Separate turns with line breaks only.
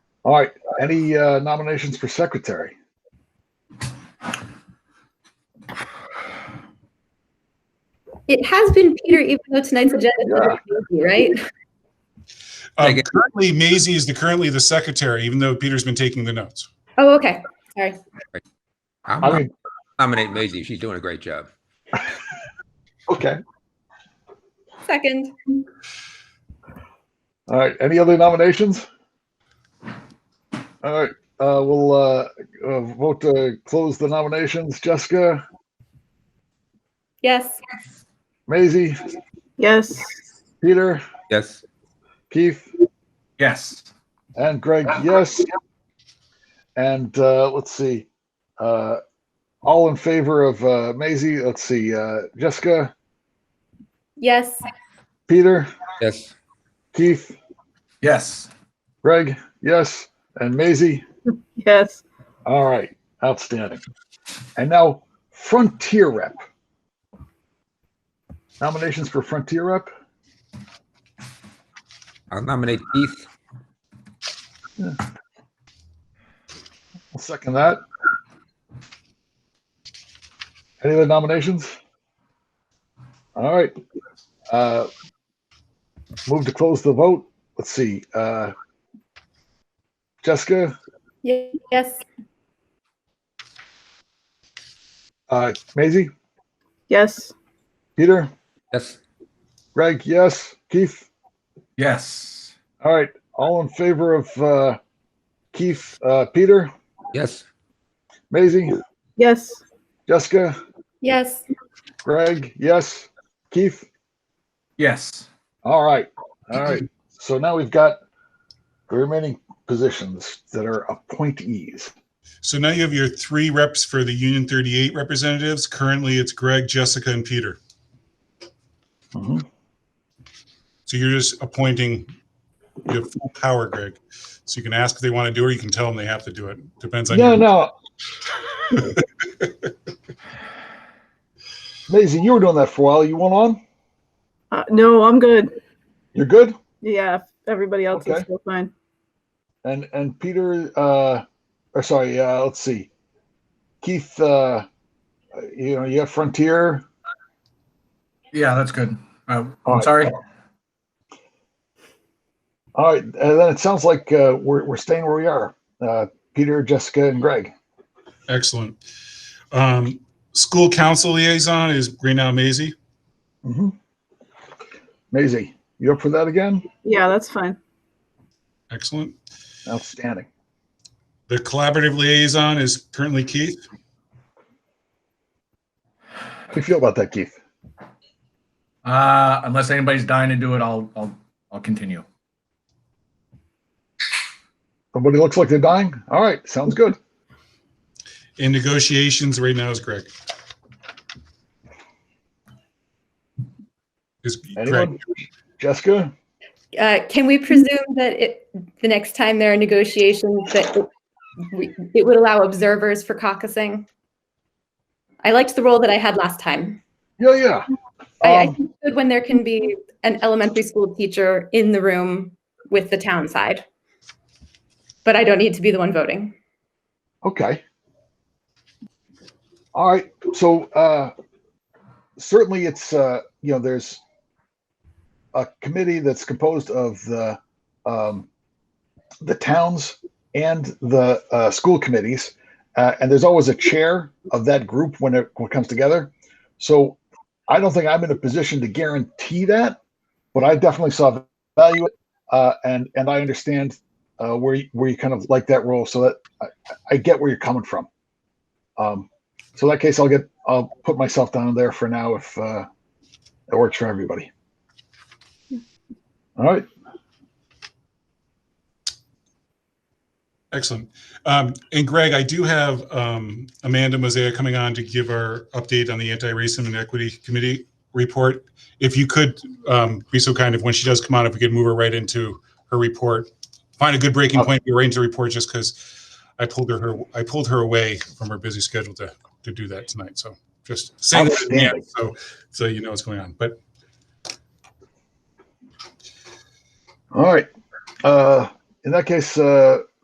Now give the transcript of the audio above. All right, any uh, nominations for secretary?
It has been Peter, even though tonight's agenda is
Yeah.
crazy, right?
Um,
Okay.
currently, Maisie is the currently the secretary, even though Peter's been taking the notes.
Oh, okay. Sorry.
I'm
I
gonna
mean,
nominate Maisie. She's doing a great job.
okay.
Second.
All right, any other nominations? All right, uh, we'll uh, uh, vote to close the nominations. Jessica,
Yes.
Maisie,
Yes.
Peter,
Yes.
Keith,
Yes.
and Greg, yes. And uh, let's see, uh, all in favor of uh, Maisie, let's see, uh, Jessica,
Yes.
Peter,
Yes.
Keith,
Yes.
Greg, yes, and Maisie.
Yes.
All right, outstanding. And now Frontier Rep. Nominations for Frontier Rep?
I'll nominate Keith.
I'll second that. Any other nominations? All right. Uh, Move to close the vote. Let's see. uh, Jessica,
Ye- Yes.
uh, Maisie,
Yes.
Peter,
Yes.
Greg, yes, Keith?
Yes.
All right, all in favor of uh, Keith, uh, Peter,
Yes.
Maisie,
Yes.
Jessica,
Yes.
Greg, yes, Keith?
Yes.
All right, all right. So now we've got the remaining positions that are appointees.
So now you have your three reps for the Union 38 representatives. Currently, it's Greg, Jessica, and Peter.
Mhm.
So you're just appointing, you have full power, Greg. So you can ask if they want to do it, or you can tell them they have to do it. Depends on
No,
you.
no. Maisie, you were doing that for a while. You went on?
Uh, no, I'm good.
You're good?
Yeah. Everybody else
Okay.
is still fine.
And and Peter, uh, or sorry, uh, let's see, Keith, uh, you know, you have Frontier.
Yeah, that's good. Uh,
All
I'm
right.
sorry.
All right, and then it sounds like uh, we're we're staying where we are. Uh, Peter, Jessica, and Greg.
Excellent. Um, school council liaison is Greenow Maisie.
Mm-hmm. Maisie, you up for that again?
Yeah, that's fine.
Excellent.
Outstanding.
The collaborative liaison is currently Keith.
How do you feel about that, Keith?
Uh, unless anybody's dying to do it, I'll I'll I'll continue.
Somebody looks like they're dying. All right, sounds good.
In negotiations right now is Greg. Is Greg,
Anyone? Jessica,
Uh, can we presume that it, the next time there are negotiations, that it, we, it would allow observers for caucusing? I liked the role that I had last time.
yeah, yeah.
I, I
Um,
think it's good when there can be an elementary school teacher in the room with the town side. But I don't need to be the one voting.
Okay. All right. So uh, certainly, it's uh, you know there's a committee that's composed of the um, the towns and the uh, school committees, uh, and there's always a chair of that group when it, when it comes together. So I don't think I'm in a position to guarantee that, but I definitely saw value uh, and and I understand uh, where you, where you kind of like that role. So that I get where you're coming from. Um, so in that case, I'll get, I'll put myself down there for now if uh, it works for everybody. All right.
excellent. Um, and Greg, I do have, um, Amanda Mosea coming on to give our update on the Anti-Racism and Equity Committee report. If you could, um, be so kind, if when she does come on, if we could move her right into her report. Find a good breaking point, to arrange the report just because I pulled her- her, I pulled her away from her busy schedule to, to do that tonight. So just saying, that, yeah,
Outstanding.
so, so you know what's going on, but
All right. Uh, in that case, uh,